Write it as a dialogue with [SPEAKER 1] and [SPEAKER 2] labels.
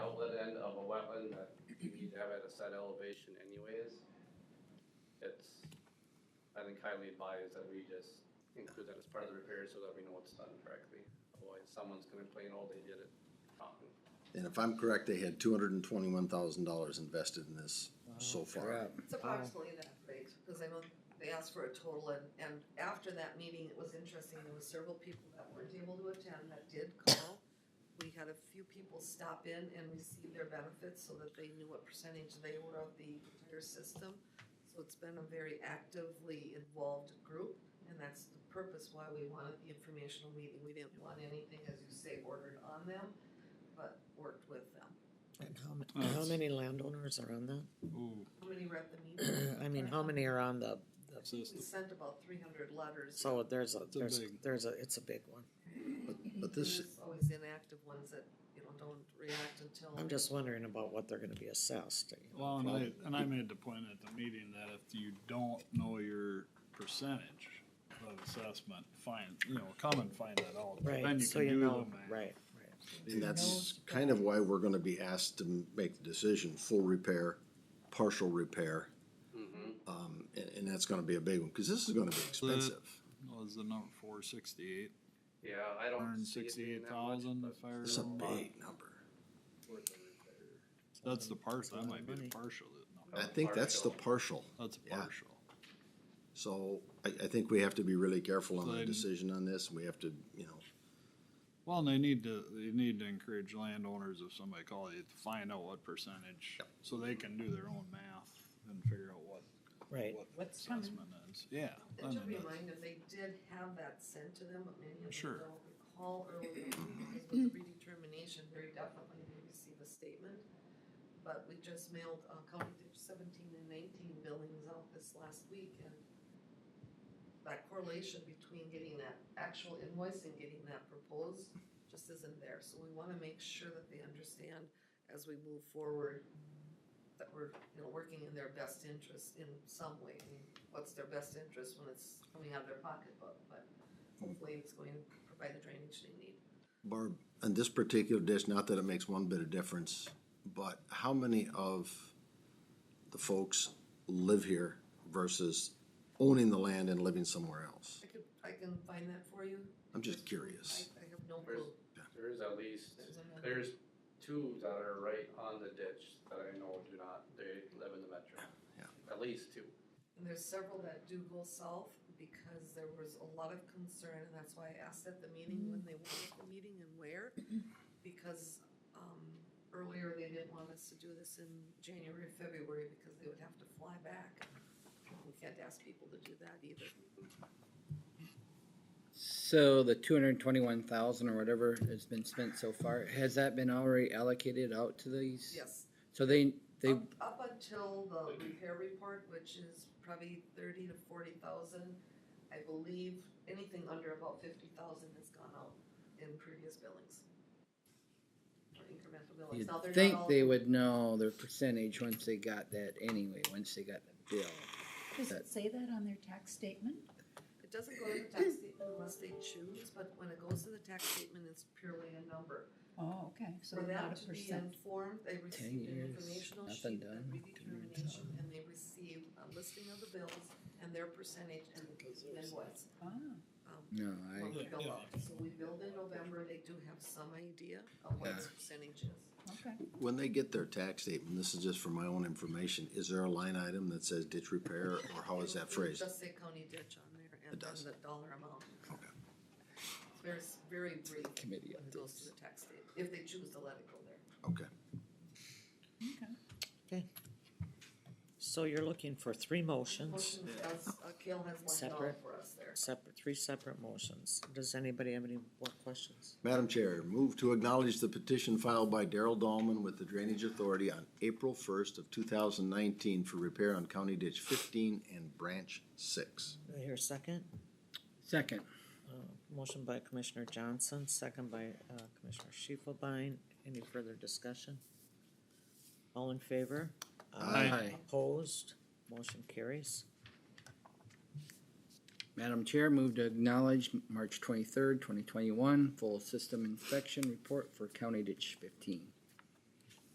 [SPEAKER 1] you need to have it at a set elevation anyways. It's, I think highly advised that we just include that as part of the repair so that we know it's done correctly. Otherwise, someone's gonna complain, oh, they did it wrong.
[SPEAKER 2] And if I'm correct, they had two hundred and twenty-one thousand dollars invested in this
[SPEAKER 3] Oh,
[SPEAKER 2] so far.
[SPEAKER 4] It's approximately that big, because I know they asked for a total and, and after that meeting, it was interesting, there were several people that weren't able to attend that did call. We had a few people stop in and receive their benefits so that they knew what percentage they were of the entire system. So it's been a very actively involved group, and that's the purpose why we wanted the informational meeting. We didn't want anything, as you say, ordered on them, but worked with them.
[SPEAKER 5] And how, ma-
[SPEAKER 3] Oh,
[SPEAKER 5] how
[SPEAKER 3] it's-
[SPEAKER 5] many landowners are on that?
[SPEAKER 3] Ooh,
[SPEAKER 4] How many read the meeting?
[SPEAKER 5] I mean, how many are on the, the-
[SPEAKER 3] so it's
[SPEAKER 4] We
[SPEAKER 3] the-
[SPEAKER 4] sent about three hundred letters.
[SPEAKER 5] so there's a,
[SPEAKER 3] a
[SPEAKER 5] there's,
[SPEAKER 3] big-
[SPEAKER 5] there's a, it's a big one.
[SPEAKER 2] But this,
[SPEAKER 4] There's Always inactive ones that, you know, don't react until.
[SPEAKER 5] I'm just wondering about what they're gonna be assessed. you know,
[SPEAKER 3] well, and
[SPEAKER 5] probably.
[SPEAKER 3] I, and I made the point at the meeting that if you don't know your percentage of assessment, find, you know, come and find that out. Then
[SPEAKER 5] Right,
[SPEAKER 3] you
[SPEAKER 5] so
[SPEAKER 3] can
[SPEAKER 5] you
[SPEAKER 3] do
[SPEAKER 5] know,
[SPEAKER 3] them.
[SPEAKER 5] right,
[SPEAKER 2] and that's kind of why we're gonna be asked to m- make the decision, full repair, partial repair. Um, and, and that's gonna be a big one, cause this is gonna be expensive.
[SPEAKER 3] Was the number four sixty-eight,
[SPEAKER 1] Yeah, I
[SPEAKER 3] four
[SPEAKER 1] don't
[SPEAKER 3] hundred
[SPEAKER 1] see it being
[SPEAKER 3] sixty-eight
[SPEAKER 1] that much,
[SPEAKER 3] thousand
[SPEAKER 1] but
[SPEAKER 3] if I
[SPEAKER 2] It's a
[SPEAKER 3] remember.
[SPEAKER 2] big number.
[SPEAKER 3] That's the partial, that
[SPEAKER 5] That's a lot
[SPEAKER 3] might
[SPEAKER 5] of
[SPEAKER 3] be the
[SPEAKER 5] money.
[SPEAKER 3] partial, that-
[SPEAKER 2] I
[SPEAKER 3] no,
[SPEAKER 2] think that's the partial,
[SPEAKER 3] that's a
[SPEAKER 2] Yeah.
[SPEAKER 3] partial.
[SPEAKER 2] so I, I think we have to be really careful on the
[SPEAKER 3] Good.
[SPEAKER 2] decision on this, we have to, you know,
[SPEAKER 3] Well, and they need to, they need to encourage landowners if somebody calls you to find out what percentage, so they can do their own math and figure out what,
[SPEAKER 5] right.
[SPEAKER 3] what the
[SPEAKER 6] What's coming.
[SPEAKER 3] assessment is, yeah. I
[SPEAKER 4] And to
[SPEAKER 3] mean,
[SPEAKER 4] remind them, they did have that sent to them, but many of them
[SPEAKER 3] Sure.
[SPEAKER 4] don't recall earlier. Because with redetermination, very definitely they receive a statement. But we just mailed, uh, county Ditch seventeen and nineteen billings out this last week and that correlation between getting that actual invoice and getting that proposed just isn't there. So we wanna make sure that they understand as we move forward that we're, you know, working in their best interest in some way. I mean, what's their best interest when it's coming out of their pocketbook, but hopefully it's going to provide the drainage they need.
[SPEAKER 2] Barb, on this particular dish, not that it makes one bit of difference, but how many of the folks live here versus owning the land and living somewhere else?
[SPEAKER 4] I could, I can find that for you.
[SPEAKER 2] I'm just curious.
[SPEAKER 4] I, I have no clue.
[SPEAKER 1] There is at least,
[SPEAKER 4] There's another-
[SPEAKER 1] there's two that are right on the ditch that I know do not, they live in the metro.
[SPEAKER 2] Yeah.
[SPEAKER 1] At least two.
[SPEAKER 4] And there's several that do go south because there was a lot of concern, and that's why I asked at the meeting when they wanted the meeting and where. Because, um, earlier they didn't want us to do this in January, or February, because they would have to fly back. We can't ask people to do that either.
[SPEAKER 6] So the two hundred and twenty-one thousand or whatever has been spent so far, has that been already allocated out to these?
[SPEAKER 4] Yes.
[SPEAKER 6] So they, they,
[SPEAKER 4] Up, up until the repair report, which is probably thirty to forty thousand, I believe anything under about fifty thousand has gone out in previous billings. Or incremental billings.
[SPEAKER 6] you'd
[SPEAKER 4] Now, Oh, they're not
[SPEAKER 6] think
[SPEAKER 4] all-
[SPEAKER 6] they would know their percentage once they got that anyway, once they got the bill.
[SPEAKER 7] Does it say that on their tax statement?
[SPEAKER 4] It doesn't go to the tax statement unless they choose, but when it goes to the tax statement, it's purely a number.
[SPEAKER 7] Oh, okay, so
[SPEAKER 4] For that
[SPEAKER 7] not a
[SPEAKER 4] to be
[SPEAKER 7] percent.
[SPEAKER 4] informed, they received an
[SPEAKER 6] years,
[SPEAKER 4] informational
[SPEAKER 6] nothing
[SPEAKER 4] sheet of
[SPEAKER 6] done,
[SPEAKER 4] redetermination, and they received a listing of the bills and their percentage and the invoice.
[SPEAKER 7] Ah.
[SPEAKER 4] Um,
[SPEAKER 6] No, I,
[SPEAKER 4] when we build up. So we build in November, they do have some idea of what its percentage is.
[SPEAKER 7] Okay.
[SPEAKER 2] When they get their tax statement, this is just for my own information, is there a line item that says ditch repair or how is that
[SPEAKER 4] It'll
[SPEAKER 2] phrased?
[SPEAKER 4] Just say county ditch on there
[SPEAKER 2] It
[SPEAKER 4] and then
[SPEAKER 2] does.
[SPEAKER 4] the dollar amount.
[SPEAKER 2] Okay.
[SPEAKER 4] It's very, s- very brief when
[SPEAKER 6] committee
[SPEAKER 4] it goes to the tax state, if they choose to let it go there.
[SPEAKER 2] Okay.
[SPEAKER 5] So you're looking for three motions,
[SPEAKER 4] Motion has, uh, Kale has one dollar
[SPEAKER 5] Separate.
[SPEAKER 4] for us there.
[SPEAKER 5] separate, three separate motions. Does anybody have any more questions?
[SPEAKER 2] Madam Chair, move to acknowledge the petition filed by Daryl Dahlman with the Drainage Authority on April first of two thousand nineteen for repair on County Ditch fifteen and Branch six.
[SPEAKER 5] Do I hear a second?
[SPEAKER 6] second,
[SPEAKER 5] Uh, Motion by Commissioner Johnson, second by uh, Commissioner Shifelbein. Any further discussion? All in favor?
[SPEAKER 2] Aye.
[SPEAKER 6] Aye.
[SPEAKER 5] Opposed? Motion carries.
[SPEAKER 6] Madam Chair, move to acknowledge March twenty-third, twenty twenty-one, full system inspection report for County Ditch fifteen.